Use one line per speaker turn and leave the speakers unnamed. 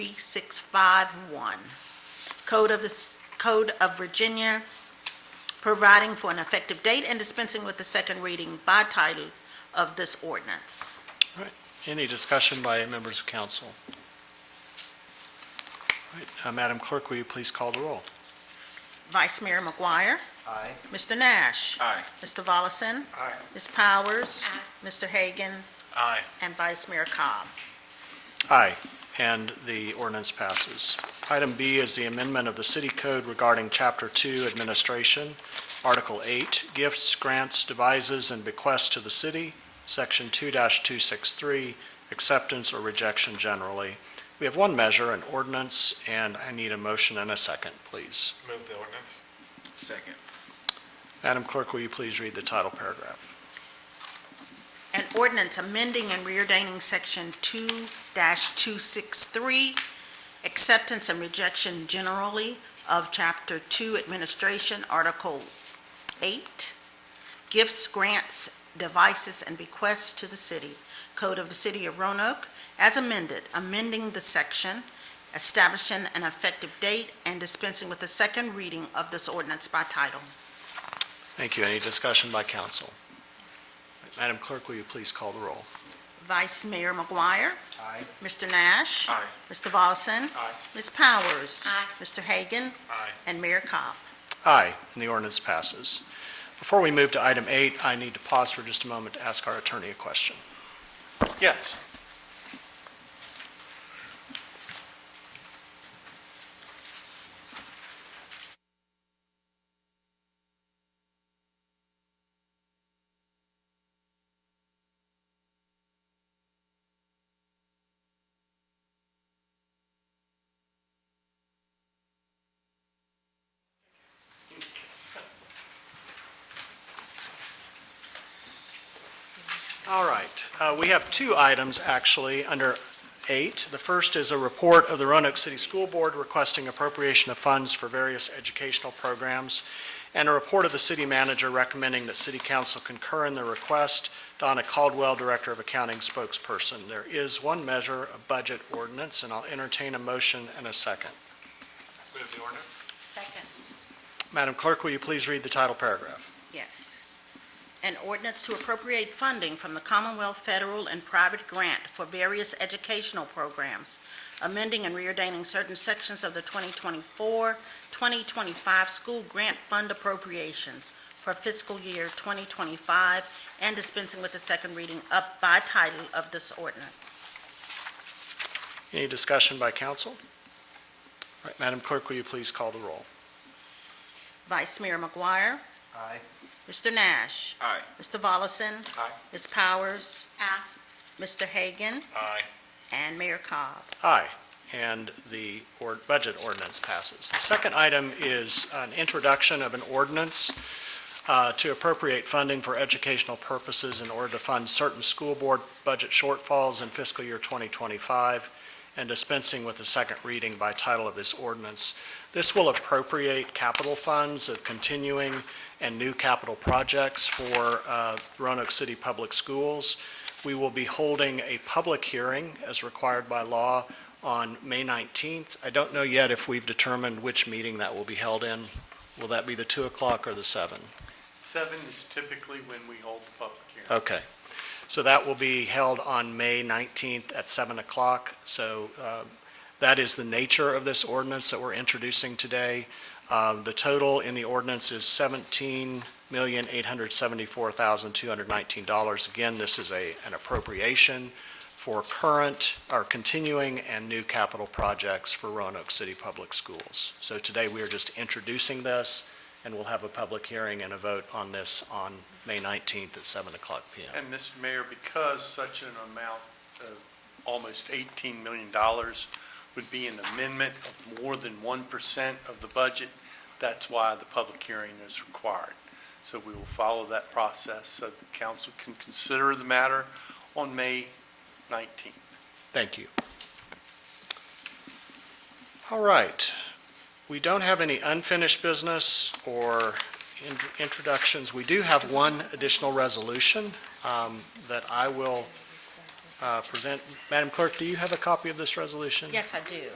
3651, Code of the, S- Code of Virginia, providing for an effective date and dispensing with the second reading by title of this ordinance.
Any discussion by members of council? All right, uh, Madam Clerk, will you please call the roll?
Vice Mayor McGuire.
Aye.
Mr. Nash.
Aye.
Mr. Volleson.
Aye.
Ms. Powers. Mr. Hagan.
Aye.
And Vice Mayor Cobb.
Aye, and the ordinance passes. Item B is the amendment of the city code regarding Chapter 2 Administration, Article 8, Gifts, Grants, Devises, and Bequests to the City, Section 2-263, Acceptance or Rejection Generally. We have one measure, an ordinance, and I need a motion and a second, please.
Move the ordinance. Second.
Madam Clerk, will you please read the title paragraph?
An ordinance amending and reordaining Section 2-263, acceptance and rejection generally of Chapter 2 Administration, Article 8, gifts, grants, devices, and bequests to the city, Code of the City of Roanoke, as amended, amending the section, establishing an effective date, and dispensing with the second reading of this ordinance by title.
Thank you. Any discussion by council? Madam Clerk, will you please call the roll?
Vice Mayor McGuire.
Aye.
Mr. Nash.
Aye.
Mr. Volleson.
Aye.
Ms. Powers. Mr. Hagan.
Aye.
And Mayor Cobb.
Aye, and the ordinance passes. Before we move to item eight, I need to pause for just a moment to ask our attorney a question.
Yes.
All right, uh, we have two items, actually, under eight. The first is a report of the Roanoke City School Board requesting appropriation of funds for various educational programs, and a report of the city manager recommending that city council concur in the request. Donna Caldwell, Director of Accounting spokesperson. There is one measure, a budget ordinance, and I'll entertain a motion and a second.
Move the ordinance.
Second.
Madam Clerk, will you please read the title paragraph?
Yes. An ordinance to appropriate funding from the Commonwealth federal and private grant for various educational programs, amending and reordaining certain sections of the 2024-2025 school grant fund appropriations for fiscal year 2025 and dispensing with the second reading up by title of this ordinance.
Any discussion by council? All right, Madam Clerk, will you please call the roll?
Vice Mayor McGuire.
Aye.
Mr. Nash.
Aye.
Mr. Volleson.
Aye.
Ms. Powers. Aye. Mr. Hagan
Aye.
and Mayor Cobb.
Aye, and the or- budget ordinance passes. The second item is an introduction of an ordinance uh, to appropriate funding for educational purposes in order to fund certain school board budget shortfalls in fiscal year 2025 and dispensing with the second reading by title of this ordinance. This will appropriate capital funds of continuing and new capital projects for uh, Roanoke City Public Schools. We will be holding a public hearing as required by law on May 19th. I don't know yet if we've determined which meeting that will be held in. Will that be the 2 o'clock or the 7?
Seven is typically when we hold the public hearing.
Okay. So that will be held on May 19th at 7 o'clock. So uh, that is the nature of this ordinance that we're introducing today. Um, The total in the ordinance is $17,874,219. Again, this is a, an appropriation for current, or continuing and new capital projects for Roanoke City Public Schools. So today, we are just introducing this, and we'll have a public hearing and a vote on this on May 19th at 7 o'clock PM.
And Mr. Mayor, because such an amount of almost $18 million would be an amendment of more than 1% of the budget, that's why the public hearing is required. So we will follow that process so the council can consider the matter on May 19th.
Thank you. All right. We don't have any unfinished business or in- introductions. We do have one additional resolution um, that I will uh, present. Madam Clerk, do you have a copy of this resolution?
Yes, I do.